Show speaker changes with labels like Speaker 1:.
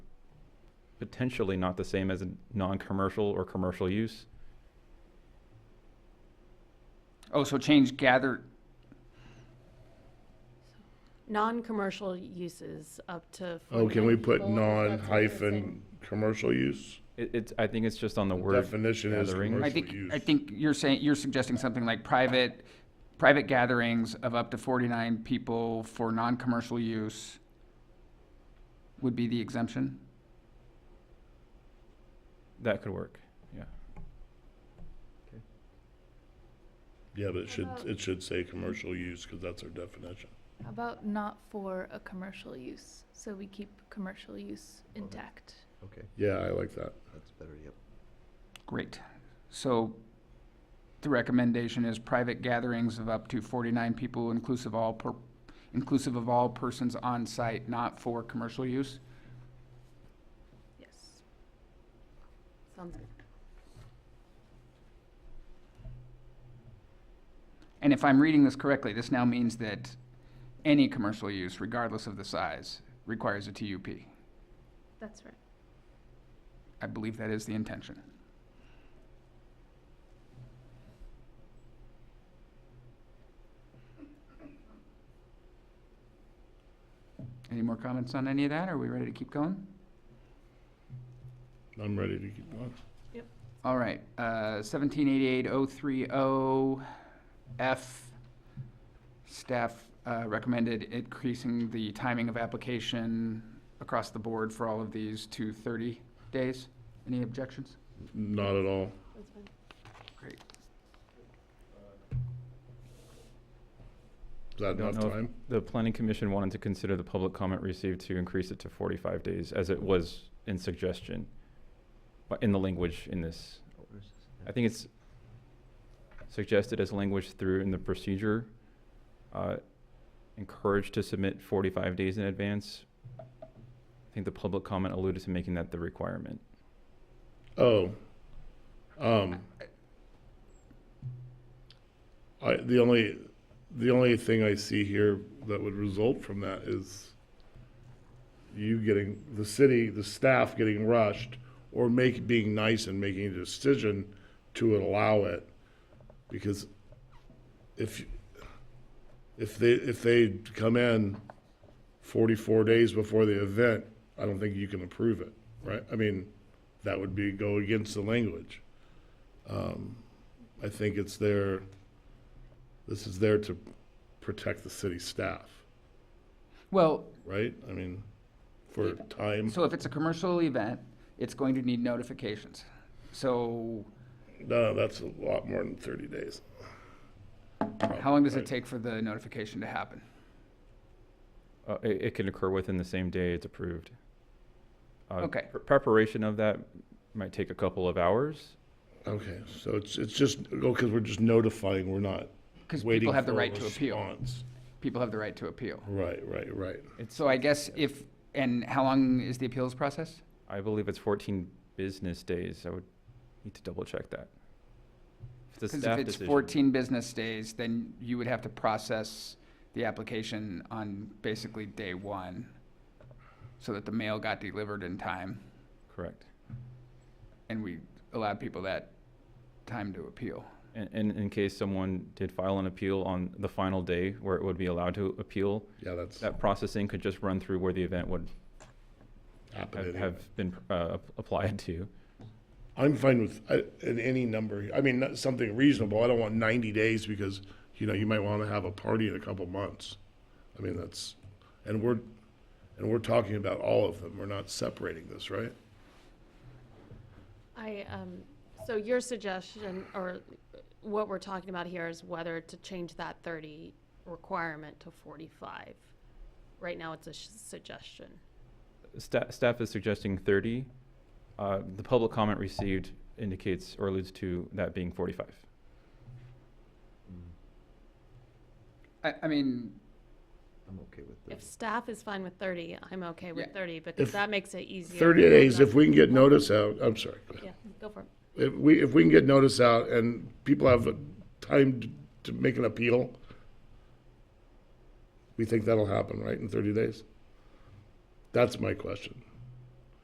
Speaker 1: potentially not the same as a non-commercial or commercial use.
Speaker 2: Oh, so change gather,
Speaker 3: Non-commercial uses up to.
Speaker 4: Oh, can
Speaker 3: 49
Speaker 4: we put
Speaker 3: people,
Speaker 4: non
Speaker 3: that's what they're
Speaker 4: hyphen
Speaker 3: saying.
Speaker 4: commercial use?
Speaker 1: It, it's, I think it's just on the word.
Speaker 4: Definition is
Speaker 1: gathering.
Speaker 2: I
Speaker 4: commercial
Speaker 2: think,
Speaker 4: use.
Speaker 2: I think you're saying, you're suggesting something like private, private gatherings of up to forty-nine people for non-commercial use would be the exemption?
Speaker 1: That could work, yeah.
Speaker 4: Yeah, but it should, it should say commercial use because that's our definition.
Speaker 5: How about not for a commercial use? So we keep commercial use intact.
Speaker 6: Okay,
Speaker 4: Yeah, I like that.
Speaker 6: that's better, yep.
Speaker 2: Great. So the recommendation is private gatherings of up to forty-nine people inclusive all per, inclusive of all persons on site, not for commercial use?
Speaker 3: Yes. Sounds good.
Speaker 2: And if I'm reading this correctly, this now means that any commercial use, regardless of the size, requires a TUP.
Speaker 5: That's right.
Speaker 2: I believe that is the intention. Any more comments on any of that? Are we ready to keep going?
Speaker 4: I'm ready to keep going.
Speaker 2: All right, uh, seventeen eighty-eight oh three oh F. Staff, uh, recommended increasing the timing of application across the board for all of these to thirty days. Any objections?
Speaker 4: Not at all.
Speaker 3: That's fine.
Speaker 2: Great.
Speaker 4: Is that
Speaker 1: Don't
Speaker 4: enough
Speaker 1: know if
Speaker 4: time?
Speaker 1: The planning commission wanted to consider the public comment received to increase it to forty-five days, as it was in suggestion, but in the language in this. I think it's suggested as language through in the procedure, uh, encouraged to submit forty-five days in advance. I think the public comment alluded to making that the requirement.
Speaker 4: Oh. Um. I, the only, the only thing I see here that would result from that is you getting, the city, the staff getting rushed or make, being nice and making a decision to allow it. Because if, if they, if they come in forty-four days before the event, I don't think you can approve it, right? I mean, that would be, go against the language. Um, I think it's there, this is there to protect the city staff,
Speaker 2: Well,
Speaker 4: right? I mean, for time,
Speaker 2: so if it's a commercial event, it's going to need notifications. So
Speaker 4: no, that's a lot more than thirty days.
Speaker 2: how long does it
Speaker 4: Right.
Speaker 2: take for the notification to happen?
Speaker 1: Uh, it, it can occur within the same day it's approved. Uh,
Speaker 2: Okay.
Speaker 1: pre- Preparation of that might take a couple of hours.
Speaker 4: Okay, so it's, it's just, oh, because we're just notifying, we're not
Speaker 2: Because
Speaker 4: waiting
Speaker 2: people
Speaker 4: for
Speaker 2: have the
Speaker 4: a
Speaker 2: right to appeal.
Speaker 4: response.
Speaker 2: People have the right to appeal.
Speaker 4: Right, right, right.
Speaker 2: So I guess if, and how long is the appeals process?
Speaker 1: I believe it's 14 business days. I would need to double check that. It's a
Speaker 2: Because
Speaker 1: staff
Speaker 2: if it's
Speaker 1: decision.
Speaker 2: fourteen business days, then you would have to process the application on basically day one, so that the mail got delivered in time,
Speaker 1: Correct.
Speaker 2: and we allowed people that time to appeal.
Speaker 1: And, and in case someone did file an appeal on the final day where it would be allowed to appeal,
Speaker 4: Yeah, that's
Speaker 1: that processing could just run through where the event would have,
Speaker 4: happening.
Speaker 1: have been uh, applied to.
Speaker 4: I'm fine with uh, in any number. I mean, not- something reasonable. I don't want 90 days because, you know, you might want to have a party in a couple months. I mean, that's, and we're, and we're talking about all of them. We're not separating this, right?
Speaker 3: I, um, so your suggestion, or what we're talking about here is whether to change that thirty requirement to forty-five. Right now, it's a sh- suggestion.
Speaker 1: Sta- staff is suggesting 30. Uh, the public comment received indicates or alludes to that being 45.
Speaker 6: Mm,
Speaker 2: I, I mean,
Speaker 6: I'm okay with
Speaker 3: If
Speaker 6: this.
Speaker 3: staff is fine with thirty, I'm okay with
Speaker 2: Yeah.
Speaker 3: thirty, because
Speaker 4: If
Speaker 3: that makes it easier.
Speaker 4: 30
Speaker 3: for
Speaker 4: days, if
Speaker 3: them.
Speaker 4: we can get notice out, I'm sorry.
Speaker 3: Yeah, go for it.
Speaker 4: If we, if we can get notice out and people have time to- to make an appeal, we think that'll happen, right, in 30 days? That's my question.